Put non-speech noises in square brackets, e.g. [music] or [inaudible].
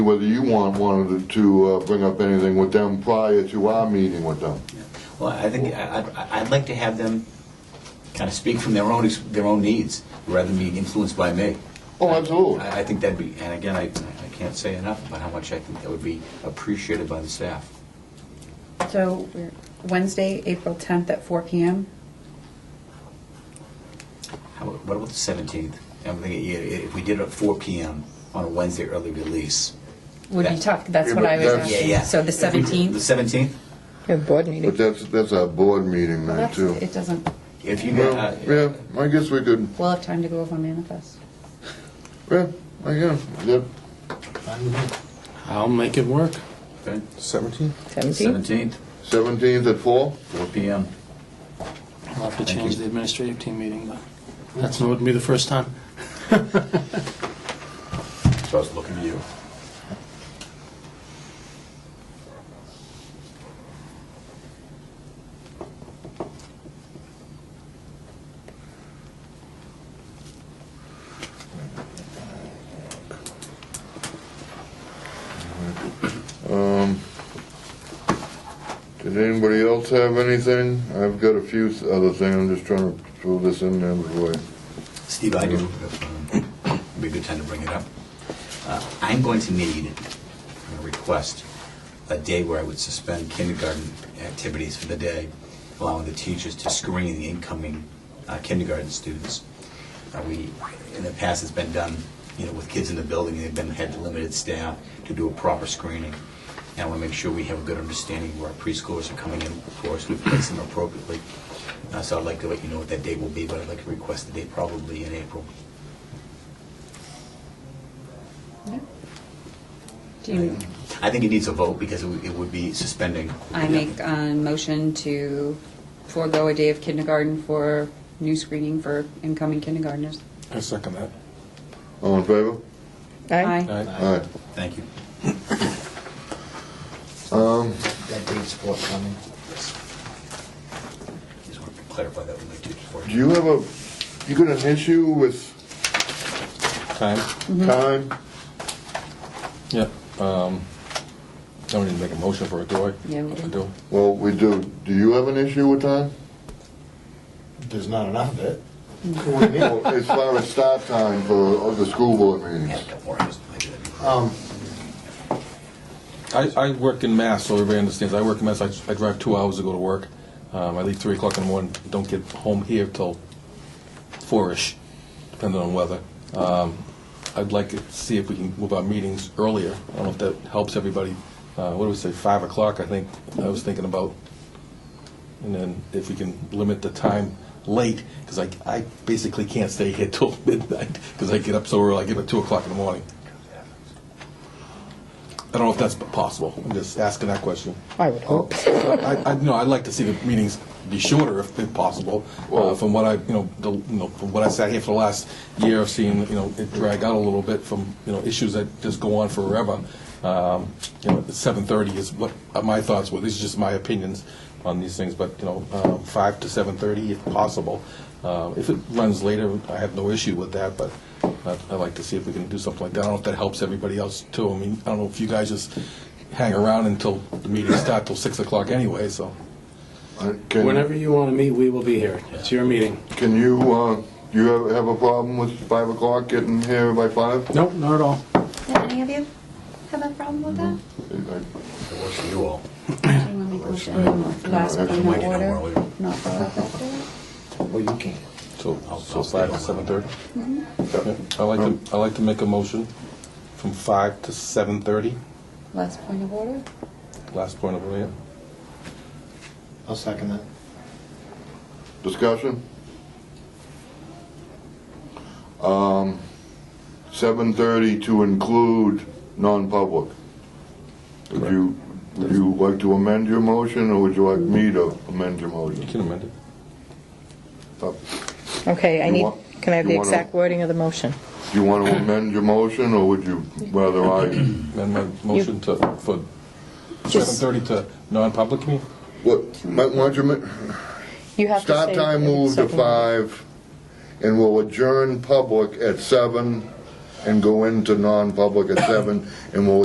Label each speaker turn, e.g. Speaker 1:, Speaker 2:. Speaker 1: whether you want, wanted to uh, bring up anything with them prior to our meeting with them.
Speaker 2: Well, I think, I- I- I'd like to have them kind of speak from their own, ex- their own needs, rather than being influenced by me.
Speaker 1: Oh, absolutely.
Speaker 2: I I think that'd be, and again, I I can't say enough about how much I think that would be appreciated by the staff.
Speaker 3: So Wednesday, April 10th at 4 PM?
Speaker 2: How about- What about the 17th? I'm thinking, yeah, if we did it at 4 PM on a Wednesday early release.
Speaker 3: Would be
Speaker 2: That-
Speaker 3: tough, that's
Speaker 1: Yeah,
Speaker 3: what
Speaker 1: but
Speaker 3: I was
Speaker 1: that's-
Speaker 2: Yeah,
Speaker 3: asking.
Speaker 2: yeah.
Speaker 3: So the
Speaker 2: If we-
Speaker 3: 17th?
Speaker 2: The 17th?
Speaker 4: We have board
Speaker 1: But
Speaker 4: meeting.
Speaker 1: that's, that's our board meeting
Speaker 3: Well,
Speaker 1: night,
Speaker 3: that's-
Speaker 1: too.
Speaker 3: It doesn't,
Speaker 2: If you, got,
Speaker 1: Well,
Speaker 2: uh,
Speaker 1: yeah, I guess we could,
Speaker 3: we'll have time to go over manifest.
Speaker 1: yeah, I guess, yeah.
Speaker 5: I'll make it work.
Speaker 2: okay,
Speaker 6: 17?
Speaker 4: 17?
Speaker 2: 17th,
Speaker 1: 17th at 4?
Speaker 2: 4 PM.
Speaker 5: I'll have to
Speaker 2: Thank
Speaker 5: change
Speaker 2: you.
Speaker 5: the administrative team meeting, but that's not, wouldn't be the first time.
Speaker 2: So I was looking at you.
Speaker 1: Did anybody else have anything? I've got a few other things, I'm just trying to throw this in there before. I-
Speaker 2: Steve, I do, if, um, it'd be a good time to bring it up. Uh, I'm going to need, I'm going to request, a day where I would suspend kindergarten activities for the day, allowing the teachers to screen the incoming uh, kindergarten students. Uh, We, in the past, it's been done, you know, with kids in the building, they've been, had limited staff to do a proper screening. And I want to make sure we have a good understanding where our preschoolers are coming in, of course, we place them appropriately. Uh, So I'd like to let you know what that date will be, but I'd like to request the date probably in April.
Speaker 3: Do you,
Speaker 2: I think it needs a vote because it would- it would be suspending.
Speaker 3: I make a motion to forego a day of kindergarten for new screening for incoming kindergartners.
Speaker 6: I second that.
Speaker 1: All in favor?
Speaker 4: Aye.
Speaker 1: Aye.
Speaker 2: Thank you.
Speaker 1: Um,
Speaker 7: That date's forthcoming.
Speaker 2: Just wanted to clarify that with my teachers. for
Speaker 1: do
Speaker 2: you.
Speaker 1: you have a, you got an issue with
Speaker 6: Time?
Speaker 1: time?
Speaker 6: Yep. Um, I don't need to make a motion for it, do I?
Speaker 3: Yeah, we
Speaker 6: I
Speaker 3: do.
Speaker 6: do.
Speaker 1: Well, we do, do you have an issue with time?
Speaker 7: There's not enough of it.
Speaker 1: Well, As far as start time for the school board
Speaker 2: Yeah,
Speaker 1: meetings?
Speaker 2: a couple more hours. I do that.
Speaker 7: Um,
Speaker 6: I, I work in Mass, so everybody understands. I work in Mass. I, I drive two hours to go to work. Um, I leave 3 o'clock in the morning, don't get home here till 4 ish, depending on weather. Um, I'd like to see if we can move our meetings earlier. I don't know if that helps everybody. Uh, what do we say, 5 o'clock, I think I was thinking about. And then if we can limit the time late, because I, I basically can't stay here till [laughs] midnight, because I get up so early, I get up 2 o'clock in the morning. I don't know if that's possible. I'm just asking that question.
Speaker 4: I would hope.
Speaker 6: [laughs] I, I, no, I'd like to see the meetings be shorter if, if possible. Uh, from what I, you know, the, you know, from what I sat here for the last year, I've seen, you know, it drag out a little bit from, you know, issues that just go on forever. Um, you know, seven thirty is what my thoughts were. These are just my opinions on these things, but, you know, um, five to seven thirty if possible. Uh, if it runs later, I have no issue with that, but I'd, I'd like to see if we can do something like that. I don't know if that helps everybody else too. I mean, I don't know if you guys just hang around until the meetings start till six o'clock anyway, so.
Speaker 1: I- can-
Speaker 5: Whenever you want to meet, we will be here. It's your meeting.
Speaker 1: Can you, uh, you have- have a problem with 5 o'clock getting here by 5?
Speaker 5: Nope, not at all.
Speaker 3: Did any of you have a problem with that?
Speaker 2: If It works for you all.
Speaker 3: Do you want to make a motion on the last
Speaker 1: No,
Speaker 3: one
Speaker 1: that's
Speaker 3: in
Speaker 2: my idea, don't
Speaker 3: order?
Speaker 2: worry.
Speaker 3: Not for that day?
Speaker 7: well, you can't.
Speaker 6: So,
Speaker 2: I'll-
Speaker 6: so
Speaker 2: I'll
Speaker 6: five
Speaker 2: stay
Speaker 6: to
Speaker 2: on.
Speaker 6: seven thirty? Mm-hmm. Um, I'd like to, I'd like to make a motion from five to seven thirty,
Speaker 3: Last point of order?
Speaker 6: last point of order.
Speaker 7: I'll second that.
Speaker 1: Discussion? Um, 7:30 to include non-public. Would you, would you like to amend your motion, or would you like me to amend your
Speaker 6: You
Speaker 1: motion?
Speaker 6: can amend it.
Speaker 1: Uh, Do
Speaker 4: Okay, I
Speaker 1: You
Speaker 4: need,
Speaker 1: want-
Speaker 4: can I have
Speaker 1: you
Speaker 4: the
Speaker 1: wanna-
Speaker 4: exact wording of the motion?
Speaker 1: you want to amend your motion, or would you rather I,
Speaker 6: Amend my motion to, for seven
Speaker 4: Just-
Speaker 6: thirty to non-public meeting?
Speaker 1: what, might want you, ma-
Speaker 4: You have to say.
Speaker 1: Start time uh, move to five, and we'll adjourn public at seven and go into non-public at seven, and we'll